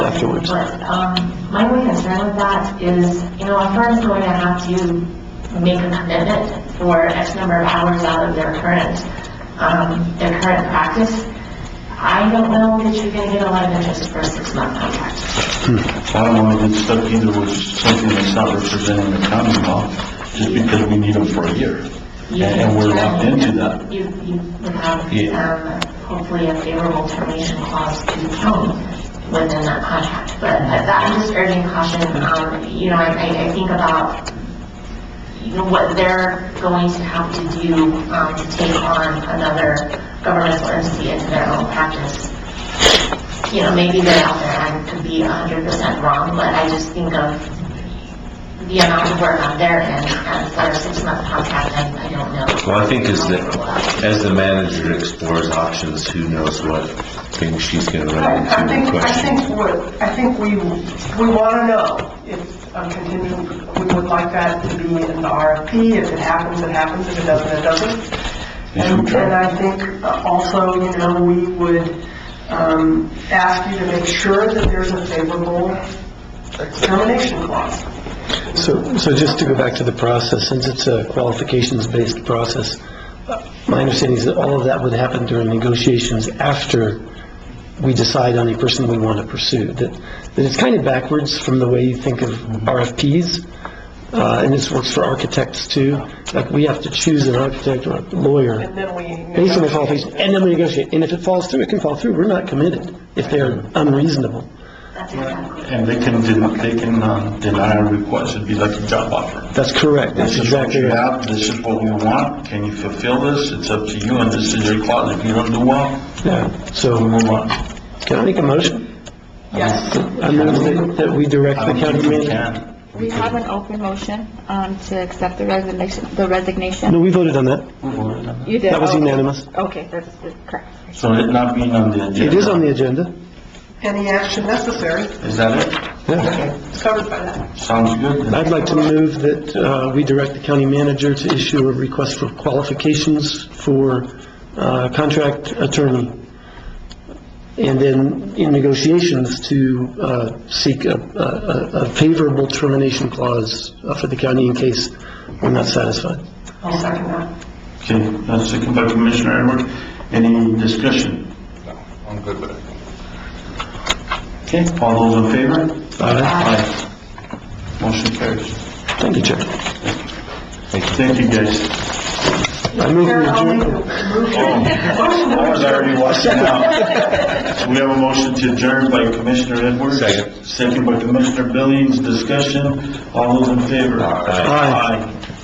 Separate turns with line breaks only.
afterwards.
But, um, my only concern with that is, you know, a firm's going to have to make a commitment for X number of hours out of their current, um, their current practice. I don't know that you're gonna get a lot of interest for a six-month contract.
I don't want to get stuck either with something that's not representing the county law, just because we need them for a year. And and we're locked into that.
You, you would have,
Yeah.
um, hopefully a favorable termination clause to the county within that contract. But uh, that, I'm just urging caution, um, you know, I, I I think about, you know, what they're going to have to do, um, to take on another governmental entity into their own practice. You know, maybe they're out there, I could be hundred percent wrong, but I just think of the amount of work on their end, and for a six-month contract, I, I don't know.
Well, I think as the, as the manager explores options, who knows what things she's gonna run
I I
into
think,
and
I
questions.
think what, I think we, we want to know if a contingent, we would like that to be in the RFP, if it happens, it happens, if it doesn't, it doesn't. And and I think uh, also, you know, we would um, ask you to make sure that there's a favorable termination clause.
So, so just to go back to the process, since it's a qualifications-based process, my understanding is that all of that would happen during negotiations after we decide on a person we want to pursue. That, that it's kind of backwards from the way you think of RFPs, uh, and this works for architects too. Like, we have to choose an architect or a lawyer
And then we.
based on the
negotiate.
qualifications, and then we negotiate. And if it falls through, it can fall through. We're not committed if they're unreasonable.
That's exactly.
And they can, den- they can uh, deny a request, it'd be like a job offer.
That's correct. That's
This is what
exactly
you
right.
have, this is what we want, can you fulfill this? It's up to you, and this is your clause, if you don't do well,
Yeah.
we
So,
move on.
can I make a motion?
Yes.
I move that- that we direct
I
the
don't
county
think we
manager.
can.
We have an open motion um, to accept the resignation, the
No,
resignation.
we voted on that.
We voted on
You did.
That was
okay.
unanimous.
Okay, that's that's correct.
it. So it not being on the agenda.
It is on the agenda.
Any action necessary
Is that
Yeah.
is covered by that.
it? Sounds good. then.
I'd like to move that uh, we direct the county manager to issue a request for qualifications for uh, contract attorney, and then in negotiations to uh, seek a- a a- a favorable termination clause uh, for the county in case we're not satisfied.
I'll second that.
Okay, that's second by Commissioner Edwards. Any discussion?
I'm good with it.
Okay, all those in favor?
Aye.
Aye. Motion carries.
Thank you, Chair.
Thank you, guys. Oh,
I move we
I'll make
adjourn.
a motion.
I was already watching out. So we have a motion to adjourn by Commissioner Edwards.
Second.
Second by Commissioner Billings. Discussion. All those in favor?
Aye.
Aye.